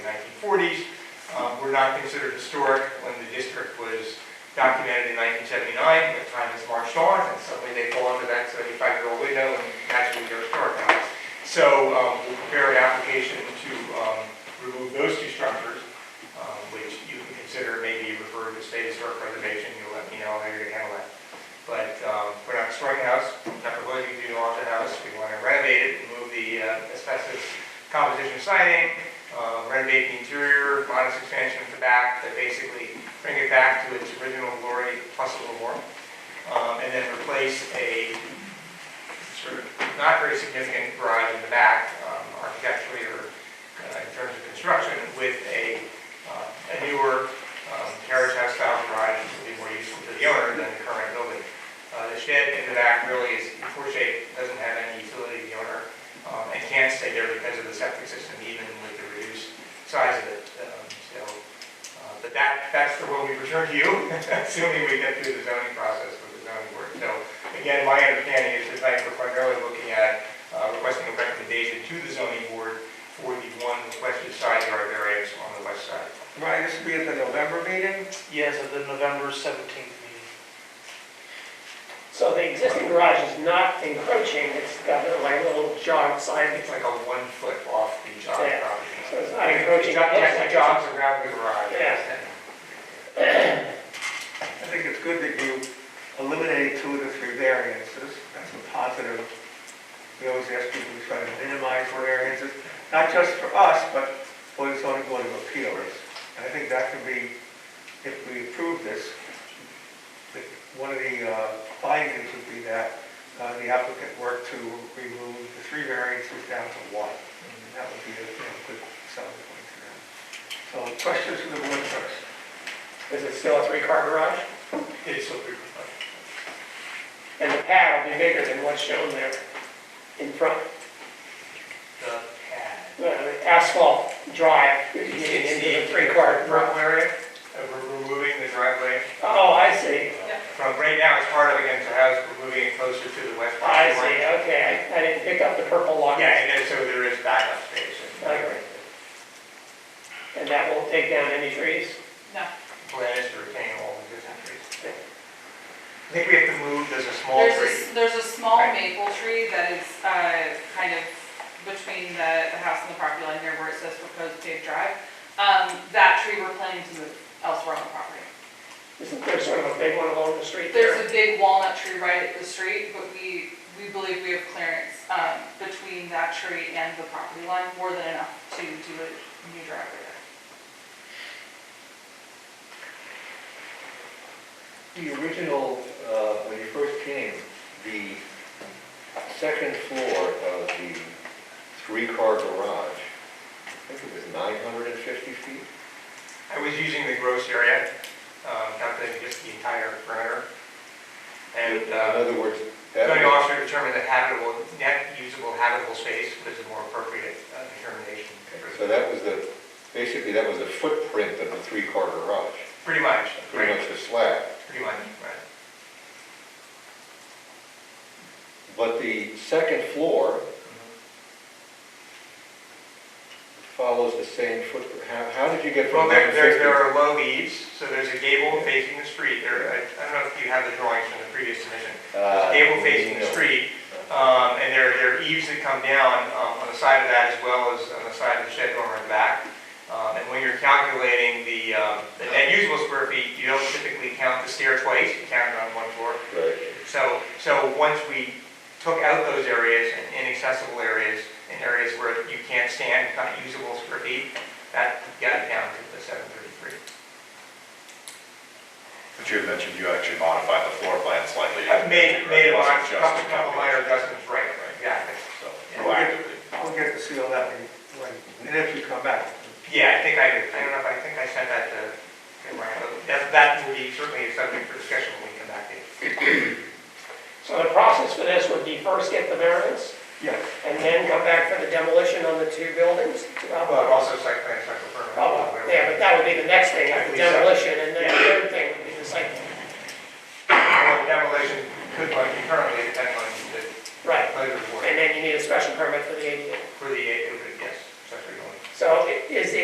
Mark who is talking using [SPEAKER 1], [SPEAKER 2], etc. [SPEAKER 1] forties, um, were not considered historic when the district was documented in nineteen seventy-nine, but time has marched on, and suddenly they fall under that seventy-five-year-old window, and naturally they're historic now. So, um, we'll prepare an application to, um, remove those two structures, um, which you can consider maybe referred to state historic preservation, you'll let me know how you're gonna handle that. But, um, we're not destroying the house, not proposing to do all the house, we wanna renovate it, remove the uh, asbestos composition siding, uh, renovate the interior, modest expansion of the back, that basically bring it back to its original glory plus a little more. Um, and then replace a sort of not very significant garage in the back, um, architecturally or uh, in terms of construction, with a, uh, a newer um, carriage house style garage, which will be more useful to the owner than the current building. Uh, The shed in the back really is poor shape, doesn't have any utility to the owner, um, and can't stay there because of the septic system, even with the reduced size of it. Um, So, uh, but that, that's the one we return to you, assuming we get through the zoning process with the zoning board. So again, my understanding is tonight we're primarily looking at uh, requesting a recommendation to the zoning board for the one requested side yard variance on the west side.
[SPEAKER 2] Right, this will be at the November meeting?
[SPEAKER 3] Yes, at the November 17th meeting.
[SPEAKER 4] So the existing garage is not encroaching, it's got a like little jog
[SPEAKER 1] It's
[SPEAKER 4] side.
[SPEAKER 1] like a one foot off the job
[SPEAKER 4] Yeah.
[SPEAKER 1] property.
[SPEAKER 4] So it's not encroaching.
[SPEAKER 1] It's got like the jobs around the garage.
[SPEAKER 4] Yeah.
[SPEAKER 2] I think it's good that you eliminated two of the three variances. That's a positive. We always ask people to try to minimize variances, not just for us, but for the zoning board of appeals. And I think that could be, if we approve this, that one of the uh, findings would be that uh, the applicant worked to remove the three variances down to one. And that would be a you know, good selling point to them. So questions from the board first?
[SPEAKER 4] Is it still a three-car garage?
[SPEAKER 1] It's so big.
[SPEAKER 4] And the pad will be bigger than what's shown there in front.
[SPEAKER 1] The pad.
[SPEAKER 4] Uh, Asphalt drive, you're
[SPEAKER 1] It's
[SPEAKER 4] getting
[SPEAKER 1] the
[SPEAKER 4] into the three-car garage.
[SPEAKER 1] Front area, uh, we're removing the driveway
[SPEAKER 4] Oh, I see,
[SPEAKER 1] from, right now it's part of against the house, we're moving it closer to the west
[SPEAKER 4] I
[SPEAKER 1] property
[SPEAKER 4] see,
[SPEAKER 1] line.
[SPEAKER 4] okay, I I didn't pick up the purple line.
[SPEAKER 1] Yeah, and then so there is backup space.
[SPEAKER 4] I agree. And that won't take down any trees?
[SPEAKER 5] No,
[SPEAKER 1] Plan is to retain all the existing trees. I think we have to move, there's a small
[SPEAKER 5] there's,
[SPEAKER 1] tree.
[SPEAKER 5] a- there's a small
[SPEAKER 1] Right.
[SPEAKER 5] maple tree that is, uh, kind of between the, the house and the property line here where it says proposed paved drive. Um, that tree we're planning to move elsewhere on the property.
[SPEAKER 4] Isn't there sort of a big one along the street there?
[SPEAKER 5] There's a big walnut tree right at the street, but we, we believe we have clearance, um, between that tree and the property line, more than enough to do a new driveway there.
[SPEAKER 6] The original, uh, when you first came, the second floor of the three-car garage, I think it was 950 feet?
[SPEAKER 1] I was using the gross area, um, not the, just the entire perimeter. And, uh,
[SPEAKER 6] In other words, that
[SPEAKER 1] Zoning
[SPEAKER 6] was
[SPEAKER 1] officer determined that habitable, net usable habitable space was a more appropriate uh, determination.
[SPEAKER 6] so that was the, basically, that was the footprint of the three-car garage,
[SPEAKER 1] Pretty much,
[SPEAKER 6] pretty
[SPEAKER 1] right,
[SPEAKER 6] much the slab.
[SPEAKER 1] pretty much, right.
[SPEAKER 6] But the second floor follows the same footprint. How, how did you get
[SPEAKER 1] Well,
[SPEAKER 6] from
[SPEAKER 1] there, there
[SPEAKER 6] 950?
[SPEAKER 1] there are low eaves, so there's a gable facing the street. There, I I don't know if you have the drawings from the previous submission.
[SPEAKER 6] Uh,
[SPEAKER 1] Gable facing the
[SPEAKER 6] no.
[SPEAKER 1] street, um, and there, there are eaves that come down um, on the side of that as well as on the side of the shed dormer in the back. Um, And when you're calculating the, um, the net usable square feet, you don't typically count the stair twice, you count it on one floor.
[SPEAKER 6] Right.
[SPEAKER 1] So, so once we took out those areas and inaccessible areas and areas where you can't stand, not usable square feet, that got it down to the seven thirty-three.
[SPEAKER 7] But you had mentioned you actually modified the floor plan slightly.
[SPEAKER 1] I've made, made a lot, a
[SPEAKER 7] Wasn't just
[SPEAKER 1] couple,
[SPEAKER 7] the
[SPEAKER 1] couple minor adjustments, right, right, exactly.
[SPEAKER 7] So proactively.
[SPEAKER 2] We'll get to see all that when, when- and if you come back.
[SPEAKER 1] Yeah, I think I, I don't know if I think I sent that to, to Ryan, but that, that will be certainly a subject for discussion when we come back to it.
[SPEAKER 4] So the process for this would be first get the variance,
[SPEAKER 2] Yes.
[SPEAKER 4] and then come back for the demolition on the two buildings?
[SPEAKER 1] Uh, But also site plan, site permit.
[SPEAKER 4] Oh, Yeah, but that would be the next thing, after demolition